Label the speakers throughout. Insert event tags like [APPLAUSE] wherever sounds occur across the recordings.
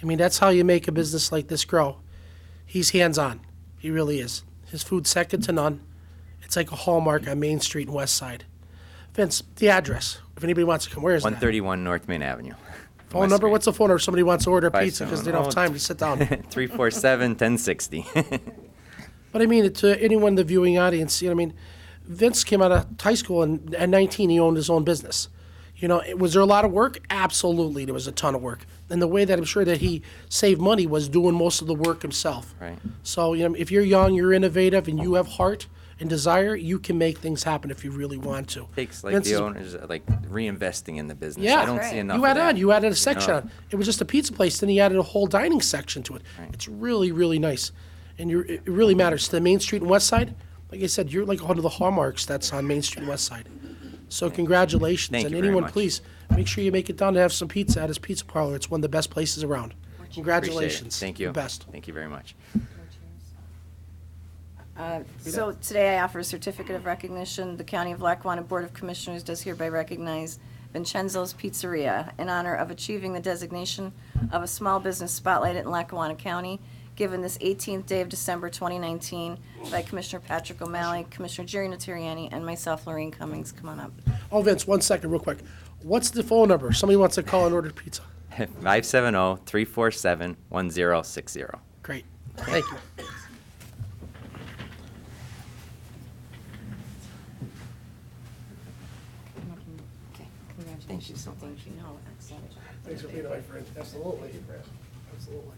Speaker 1: I mean, that's how you make a business like this grow. He's hands on. He really is. His food's second to none. It's like a hallmark on Main Street and West Side. Vince, the address. If anybody wants to come, where is that?
Speaker 2: 131 North Main Avenue.
Speaker 1: [LAUGHS] Phone number?
Speaker 2: [LAUGHS]
Speaker 1: What's the phone number if somebody wants to order
Speaker 2: Five
Speaker 1: pizza because they
Speaker 2: seven
Speaker 1: don't have
Speaker 2: oh.
Speaker 1: time to sit down?
Speaker 2: 347 [LAUGHS] 1060.
Speaker 1: But I mean, to anyone in the viewing audience, you know, I mean, Vince came out of high school and at 19 he owned his own business. You know, it- was there a lot of work? Absolutely, there was a ton of work. And the way that I'm sure that he saved money was doing most of the work himself.
Speaker 2: Right.
Speaker 1: So you know, if you're young, you're innovative, and you have heart and desire, you can make things happen if you really want to.
Speaker 2: Takes like
Speaker 1: Vince
Speaker 2: the
Speaker 1: is-
Speaker 2: owners uh, like reinvesting in the business.
Speaker 1: Yeah.
Speaker 2: I don't
Speaker 1: That's
Speaker 2: see
Speaker 3: right.
Speaker 2: enough.
Speaker 1: you
Speaker 2: of
Speaker 1: add
Speaker 2: that.
Speaker 1: on, you added a section
Speaker 2: know?
Speaker 1: on. It was just a pizza place, then he added a whole dining section to it.
Speaker 2: Right.
Speaker 1: It's really, really nice. And you're, it it really matters. To the Main Street and West Side, like I said, you're like one of the hallmarks that's on Main Street and West Side. So congratulations.
Speaker 2: Thank
Speaker 1: and
Speaker 2: you very
Speaker 1: anyone,
Speaker 2: much.
Speaker 1: please, make sure you make it down to have some pizza at his pizza parlor. It's one of the best places around.
Speaker 2: Appreciate it.
Speaker 1: Congratulations.
Speaker 2: Thank you.
Speaker 1: The best.
Speaker 2: Thank you very much. [LAUGHS]
Speaker 3: So today I offer a certificate of recognition. The County of Lackawanna Board of Commissioners does hereby recognize Vincenzo's Pizzeria in honor of achieving the designation of a small business spotlight in Lackawanna County, given this 18th day of December 2019 by Commissioner Patrick O'Malley, Commissioner Jerry Natariani, and myself, Lorraine Cummings. Come on up.
Speaker 1: Oh, Vince, one second, real quick. What's the phone number? Somebody wants to call and order pizza.
Speaker 2: 570 347 1060.
Speaker 1: Great. Thank
Speaker 2: [LAUGHS]
Speaker 1: you.
Speaker 3: Okay, congratulations. Thank you. No, excellent.
Speaker 1: Thanks for being my friend. Absolutely. Absolutely.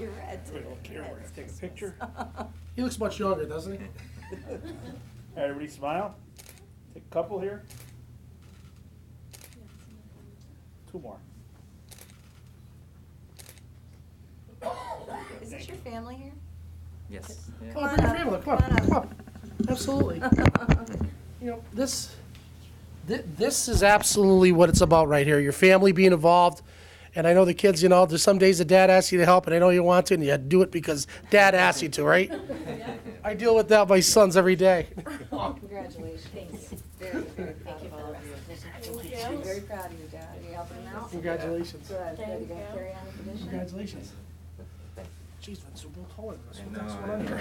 Speaker 3: You're red.
Speaker 4: Take a picture.
Speaker 1: He looks much younger, doesn't he?
Speaker 4: Everybody smile. Take a couple here. Two more.
Speaker 3: Is this your family here?
Speaker 2: Yes.
Speaker 1: Come on, bring your family. Come on, come on. [LAUGHS] Absolutely. You know, this, thi- this is absolutely what it's about right here. Your family being involved. And I know the kids, you know, there's some days that dad asks you to help and I know you want to and you do it because dad asks you to, [LAUGHS] right? I deal with that with my sons every [LAUGHS] day.
Speaker 3: Congratulations. Very, very proud of all of you. Thank you. Very proud of you, Dad. Are you helping them out?
Speaker 1: Congratulations.
Speaker 3: Good. Good. You gonna carry on the tradition?
Speaker 1: Congratulations. Jeez, that's so taller. That's what- that's what I'm here.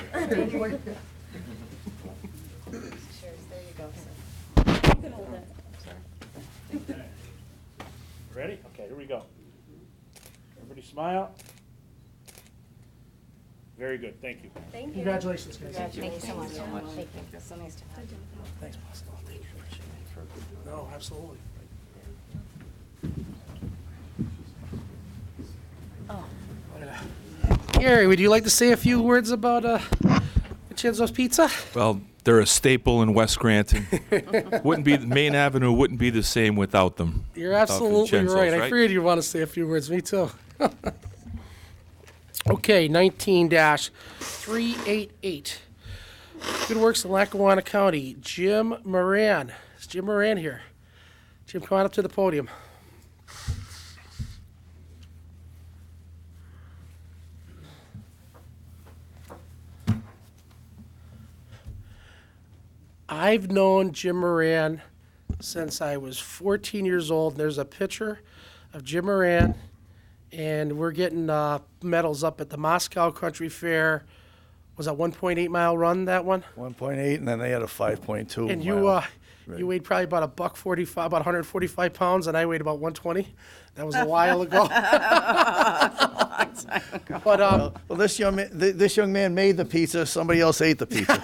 Speaker 3: Cheers. There you go. son.
Speaker 4: Ready? Okay, here we go. Everybody smile. Very good, thank you.
Speaker 1: Congratulations, guys.
Speaker 3: Thank you so much.
Speaker 2: so much.
Speaker 3: Thank you. So nice to have you.
Speaker 1: Thanks, boss. Oh, Thank you. No, absolutely. Oh. Gary, would you like to say a few words about uh, Vincenzo's Pizza?
Speaker 5: Well, they're a staple in
Speaker 1: [LAUGHS]
Speaker 5: West Granton. wouldn't be Main Avenue wouldn't be the same without them.
Speaker 1: You're
Speaker 5: without
Speaker 1: absolutely
Speaker 5: Vincenzo's,
Speaker 1: right. I figured you'd want to say a few words. Me too. [LAUGHS] okay, 19 388. Good Works in Lackawanna County. Jim Moran. Is Jim Moran here? Jim, come on up to the podium. I've known Jim Moran since I was 14 years old. And there's a picture of Jim Moran, and we're getting uh, medals up at the Moscow Country Fair. Was that 1.8 mile run that one?
Speaker 6: One point eight, and then they had a five point two.
Speaker 1: and you, uh, you weighed probably about a buck 45, about 145 pounds, and I weighed about 120. That was a while ago. But um,
Speaker 6: well, this young man, th- this young man made the pizza. Somebody else ate the pizza.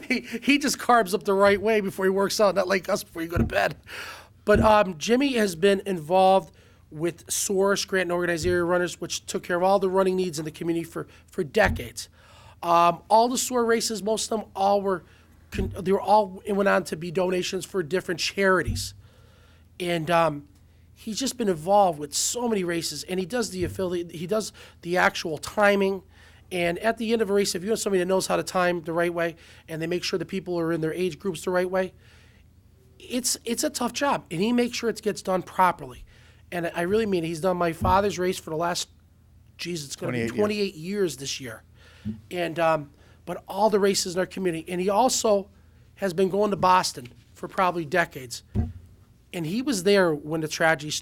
Speaker 1: [LAUGHS] he, he just carbs up the right way before he works out, not like us before you go to bed. But um, Jimmy has been involved with Source Grant and Organized Area Runners, which took care of all the running needs in the community for, for decades. Um, all the SOAR races, most of them all were, con- they were all it went on to be donations for different charities and um, he's just been involved with so many races and he does the affiliate he does the actual timing and at the end of a race if you have somebody that knows how to time the right way and they make sure the people are in their age groups the right way it's it's a tough job and he makes sure it gets done properly and i really mean it. he's done my father's race for the last geez it's going to be
Speaker 6: 28 years.
Speaker 1: 28 years. this year and um, but all the races in our community and he also has been going to boston for probably decades and he was there when the tragedy